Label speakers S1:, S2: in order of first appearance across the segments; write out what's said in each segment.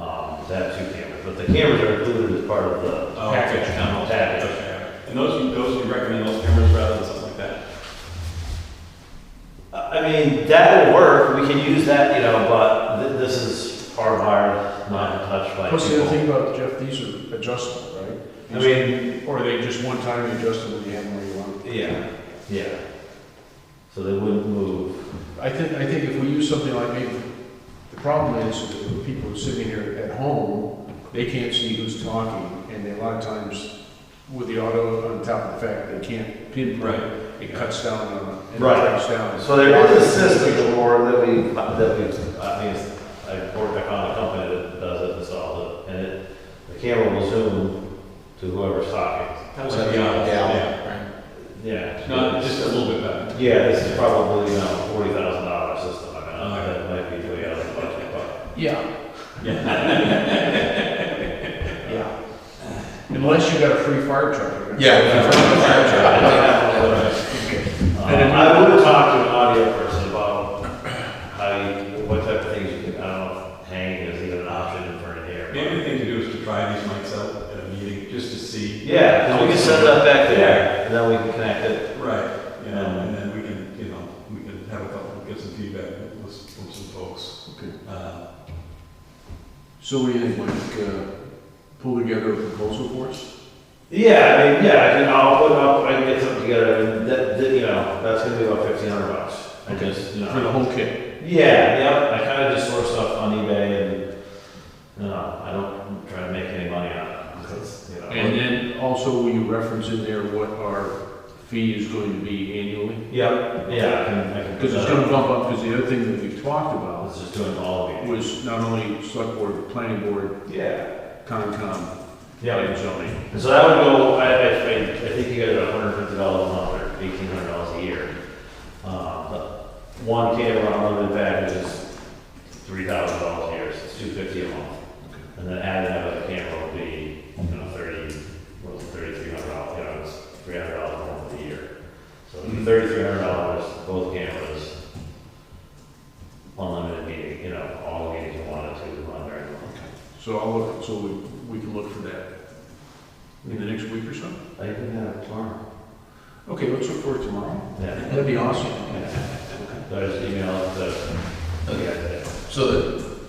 S1: to have Um, two cameras, but the cameras are included as part of the
S2: Oh,
S1: package,
S2: okay.
S1: the package.
S2: Okay. And those, you- those, you recommend those cameras rather than something like that?
S1: I mean, that will work, we can use that, you know, but thi- this is hardwired, not touched by
S3: What's the other
S1: people.
S3: thing about Jeff, these are adjustable, right?
S1: I mean,
S3: Or are they just one time adjustable, you have them where you want?
S1: yeah, yeah. So they wouldn't move.
S3: I think, I think if we use something like, maybe, the problem is, that people sitting here at home, they can't see who's talking, and they- a lot of times, with the auto on top of the fact, they can't pinpoint, it cuts down on, and it
S1: Right.
S3: cuts down.
S1: So there is a system or that we, that we, I mean, it's- I worked, I found a company that does it, and solves it, and it, the camera will zoom to whoever's talking.
S2: That was
S4: So
S2: a
S4: you
S2: yeah,
S4: know,
S2: yeah.
S4: yeah, right.
S1: Yeah.
S2: No, just a little bit better.
S1: Yeah, this is probably, you know, forty thousand dollar system, I mean, I
S2: Okay.
S1: think that might be way out of the budget, but.
S3: Yeah,
S2: Yeah.
S3: yeah. Unless you got a free fire truck. you're gonna-
S4: Yeah, if you're from the fire truck, I think-
S1: Uh, I would talk to an audio person about how you, what type of things you can, I don't know, if hanging is even an option for an air.
S2: Maybe the thing to do is to try these mics out at a meeting, just to see.
S1: Yeah, 'cause we can set it up back there, and then we can connect it.
S2: Right, you know, and then we can, you know, we can have a couple, get some feedback with- from some folks.
S3: Okay.
S2: Uh,
S3: So what do you think, Mike, uh, pull together a proposal for us?
S1: Yeah, I mean, yeah, I can, I'll put, I'll, I can get something together, and that, that, you know, that's gonna be about fifteen hundred bucks. I
S3: Okay.
S1: just, you know.
S3: For the whole kit?
S1: Yeah, yeah. I kind of just source stuff on eBay, and uh, I don't try to make any money on it. 'cause, you know,
S3: And then also, will you reference in there what our fee is going to be annually?
S1: yeah, yeah. I can, I can
S3: Because it's gonna bump up, because the other thing that we've talked about
S1: It's just doing all of it.
S3: was not only select board, planning board,
S1: Yeah.
S3: concom,
S1: Yeah.
S3: and zoning.
S1: And so that would go. I, I, I I think you guys are one hundred fifty dollars a month or eighteen hundred dollars a year. Uh, but one camera unlimited package is three thousand dollars a year. So it's two fifty a month, and then adding another camera would be you know thirty, what was it, thirty three hundred dollars? You know, it's three hundred dollars a month a year. So
S2: Mhm.
S1: thirty-three hundred dollars, both cameras, unlimited meeting, you know, all the meetings you wanted to run during the month.
S3: So I'll look, so we, we can look for that in the next week or so.
S1: I can have tomorrow.
S3: Okay, let's look for it tomorrow.
S1: Yeah.
S3: That'd be awesome.
S1: So I just emailed the, okay,
S4: So the,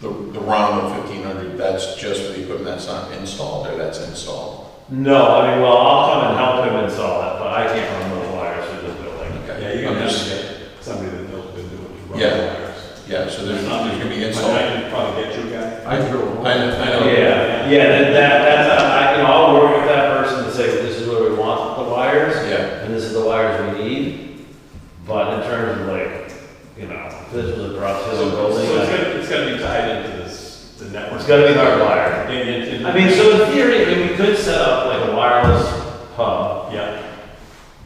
S4: the, the ROM of fifteen hundred, that's just for the equipment that's not installed, or that's installed?
S1: no, I mean, well, I'll come and help him install it, but I can't run the wires through the building.
S2: Yeah,
S4: Okay.
S2: you can
S4: I'm just-
S2: have somebody that knows what they're doing. to run
S4: Yeah.
S2: the wires.
S4: Yeah, so there's, there's gonna be
S2: But
S4: installed.
S2: I can probably get you a guy.
S3: I
S4: I,
S3: throw
S4: I
S3: a
S4: know.
S1: Yeah, yeah, that, that- that's, I, you know, I'll work with that person to say, this is where we want the wires.
S4: Yeah,
S1: and this is the wires we need. But in terms of like, you know, if this was a
S2: So
S1: Brazil
S2: so
S1: building,
S2: it's
S1: like,
S2: gonna, it's gonna be tied into this, the network.
S1: it's gotta be hardwired.
S2: And, and.
S1: I mean, so in theory, I mean, we could set up like a wireless hub,
S2: Yeah,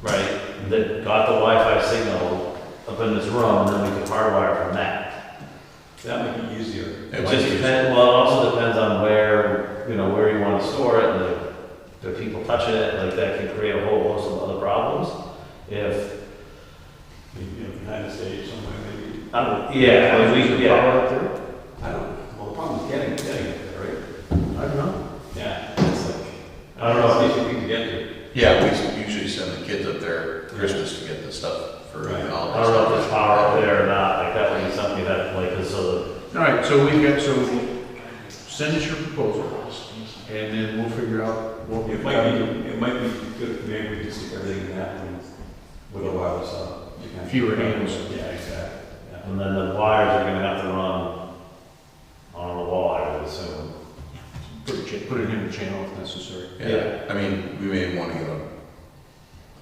S1: right, that got the Wi-Fi signal up in this room, and then we could hardwire from that.
S2: that might be easier.
S4: Yeah,
S1: It
S4: might
S1: just
S4: be.
S1: depends, well, it also depends on where, you know, where you wanna store it, and the- the people touching it, like that can create a whole host of other problems. If,
S2: Maybe, you know, behind the stage somewhere, maybe.
S1: I don't, yeah, I mean, we, yeah.
S3: power out there.
S2: I don't, well, the problem is getting, getting it, right?
S3: I don't know.
S2: Yeah, it's like,
S1: I don't know.
S2: It's easy to get to.
S4: yeah, we s- usually send the kids up there Christmas to get the stuff for
S2: Right.
S4: all that
S1: I don't know if there's
S4: stuff.
S1: power up there or not, like that would be something that, like, is a,
S3: All right, so we've got, so send us your proposal, and then we'll figure out what
S2: It
S3: we've
S2: might
S3: got.
S2: be, it might be good, if maybe we just stick everything in that one with a wireless hub. You can-
S3: Fewer hands.
S2: Yeah, exactly, yeah.
S1: and then the wires are gonna have to run on the wall, I would assume.
S3: Put it, cha- put it in the channel if necessary.
S4: Yeah, I mean, we may wanna get a,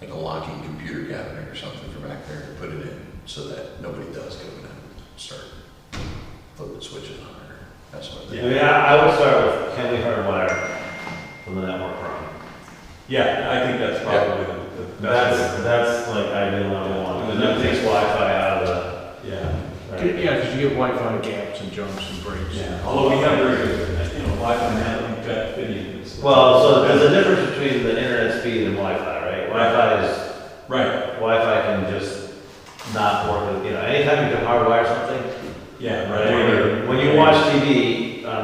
S4: like a locking computer cabinet or something for back there and put it in, so that nobody does go in and start flipping switches on it, or that sort
S1: I
S4: of thing.
S1: mean, I, I would start with, can we hardwire from the network room?
S2: Yeah, I think that's probably the, the
S1: That's,
S2: best.
S1: that's like ideal level one, and that takes Wi-Fi out of
S2: Yeah,
S1: the, right?
S3: Yeah, because you get Wi-Fi gaps and jumps and breaks.
S2: yeah, although we have very good, uh, you know, Wi-Fi now, we've got video. so-
S1: Well, so there's a difference between the internet speed and Wi-Fi, right? Wi-Fi is
S2: Right,
S1: Wi-Fi can just not work, with- you know, anytime you can hardwire something.
S2: yeah,
S1: When
S2: right.
S1: you- When you watch uh, TV,